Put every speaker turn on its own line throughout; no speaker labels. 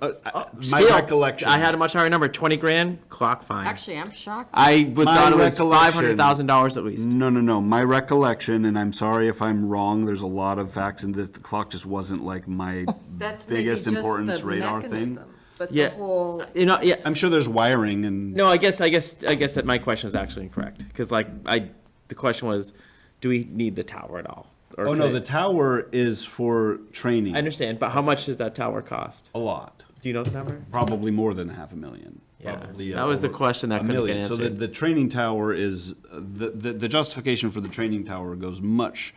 uh, uh, my
Still,
recollection.
I had a much higher number, twenty grand, clock fine.
Actually, I'm shocked.
I would
My
thought it was
recollection-
five hundred thousand dollars at least.
No, no, no. My recollection, and I'm sorry if I'm wrong, there's a lot of facts, and the the clock just wasn't like my
That's maybe
biggest
just the
importance radar thing.
mechanism, But the
Yeah,
whole,
you know, yeah,
I'm sure there's wiring and.
No, I guess, I guess, I guess that my question is actually incorrect, because like, I, the question was, do we need the tower at all? Or
Oh, no,
could-
the tower is for training.
I understand, but how much does that tower cost?
A lot.
Do you know the number?
Probably more than half a million.
Yeah,
Probably, uh,
that was the
over
question that
a
couldn't get
million. So the,
answered.
the training tower is, uh, the, the, the justification for the training tower goes much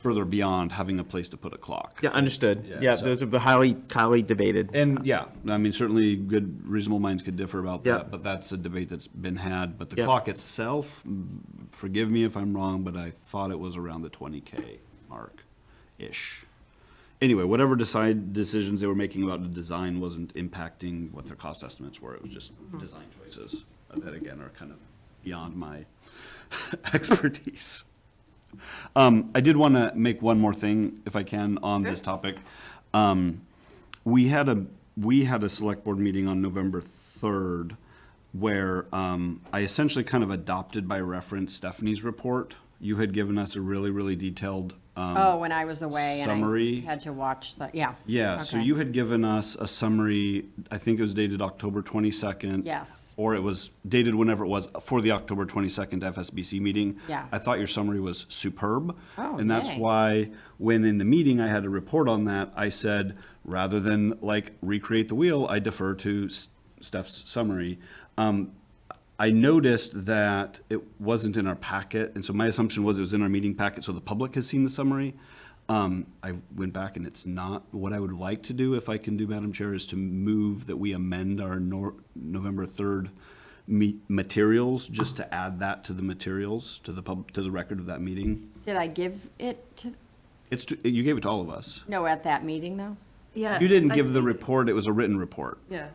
further beyond having a place to put a clock.
Yeah, understood.
Yeah,
Yeah,
so-
those are highly, highly debated.
And yeah, I mean, certainly good, reasonable minds could differ about
Yeah.
that, but that's a debate that's been had. But the
Yeah.
clock itself, mm, forgive me if I'm wrong, but I thought it was around the twenty K mark-ish. Anyway, whatever decide, decisions they were making about the design wasn't impacting what their cost estimates were. It was just
Mm-hmm.
design choices that again are kind of beyond my expertise. Um, I did want to make one more thing, if I can, on this topic. Um, we had a, we had a select board meeting on November third where, um, I essentially kind of adopted by reference Stephanie's report. You had given us a really, really detailed, um,
Oh, when I was away and
summary.
I had to watch the, yeah.
yeah, so
Okay.
you had given us a summary, I think it was dated October 22nd.
Yes.
Or it was dated whenever it was for the October 22nd FSBC meeting.
Yeah.
I thought your summary was superb.
Oh,
And that's
yay.
why, when in the meeting I had to report on that, I said, rather than like recreate the wheel, I defer to S- Steph's summary. Um, I noticed that it wasn't in our packet, and so my assumption was it was in our meeting packet, so the public has seen the summary. Um, I went back and it's not. What I would like to do, if I can do, Madam Chair, is to move that we amend our Nor- November third me- materials, just to add that to the materials, to the pub, to the record of that meeting.
Did I give it to,
It's, to- you gave it to all of us.
no, at that meeting though?
yeah.
You didn't
I
give the
think-
report, it was a written report.
Yeah.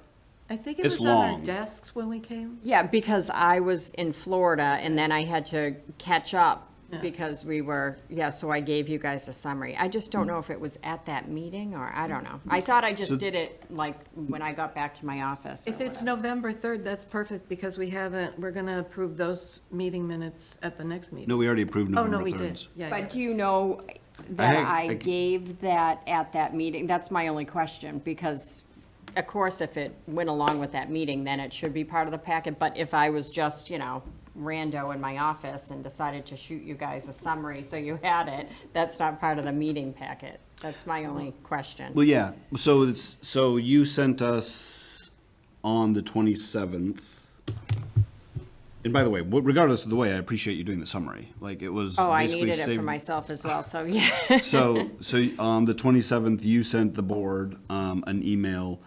I think it
It's
was on our
long.
desks when we came.
Yeah, because I was in Florida and then I had to catch up because we were, yeah, so I gave you guys a summary. I just
Hmm.
don't know if it was at that meeting or, I don't know. I thought I just did it like when I got back to my office. or
If it's
whatever.
November 3rd, that's perfect because we haven't, we're going to approve those meeting minutes at the next meeting.
No, we already approved
Oh, no,
November
we
third.
did. Yeah, yeah.
But do you know that
I-
I
I-
gave that at that meeting? That's my only question, because of course, if it went along with that meeting, then it should be part of the packet. But if I was just, you know, rando in my office and decided to shoot you guys a summary, so you had it, that's not part of the meeting packet. That's my only question.
Well, yeah, so it's, so you sent us on the twenty-seventh. And by the way, w- regardless of the way, I appreciate you doing the summary, like, it was
Oh, I
basically
needed it
saved.
for myself as well, so yeah.
So, so on the twenty-seventh, you sent the board, um, an email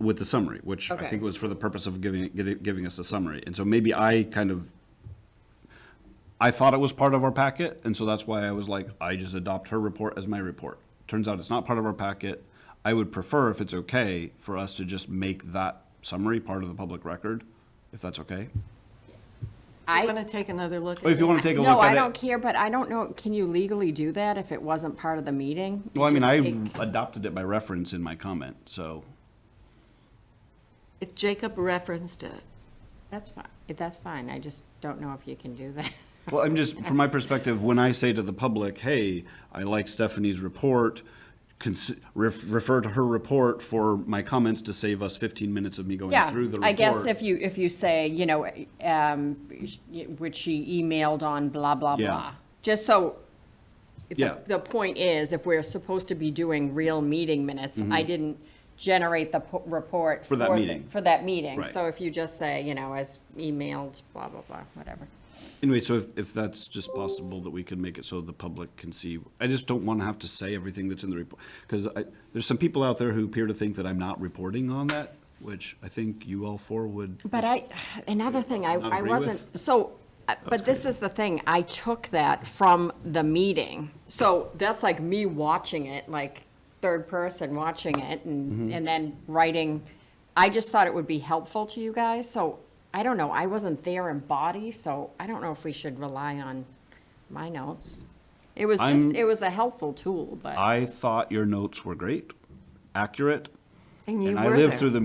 with the summary, which I
Okay.
think was for the purpose of giving, giving- giving us a summary, and so maybe I kind of I thought it was part of our packet, and so that's why I was like, I just adopt her report as my report. Turns out it's not part of our packet. I would prefer, if it's okay, for us to just make that summary part of the public record, if that's okay.
I-
I'm going to take another look.
Or Oh, if you
at
want to take a
No,
look
I
at
don't
it.
care, but I don't know, can you legally do that if it wasn't part of the meeting? You
Well, I mean,
just
I
take-
adopted it by reference in my comment, so.
If Jacob referenced it.
That's fine, that's fine, I just don't know if you can do that.
Well, I'm just, from my perspective, when I say to the public, hey, I like Stephanie's report, cons- ref- refer to her report for my comments to save us fifteen minutes of me going
Yeah,
through the report.
I guess if you, if you say, you know, um, which she emailed on blah, blah,
Yeah.
blah. Just so, the-
Yeah.
the point is, if we're supposed to be doing real meeting minutes, I didn't generate the po- report.
Mm-hmm. For that
the-
meeting.
For that meeting.
Right.
So if you just say, you know, as emailed, blah, blah, blah, whatever.
Anyway, so if, if that's just possible, that we can make it so the public can see, I just don't want to have to say everything that's in the report. Because I, there's some people out there who appear to think that I'm not reporting on that, which I think you all four would.
But I, another thing, I,
not
I
agree
wasn't, so, uh, but this is the thing, I took that from the meeting. So that's like me watching it, like third person watching it and, and then writing. I just thought it would be helpful to you guys, so I don't know, I wasn't there in body, so I don't know if we should rely on my notes. It was just,
I'm-
it was a helpful tool, but,
I thought your notes were great, accurate,
And you
And I
were
lived
there.
through the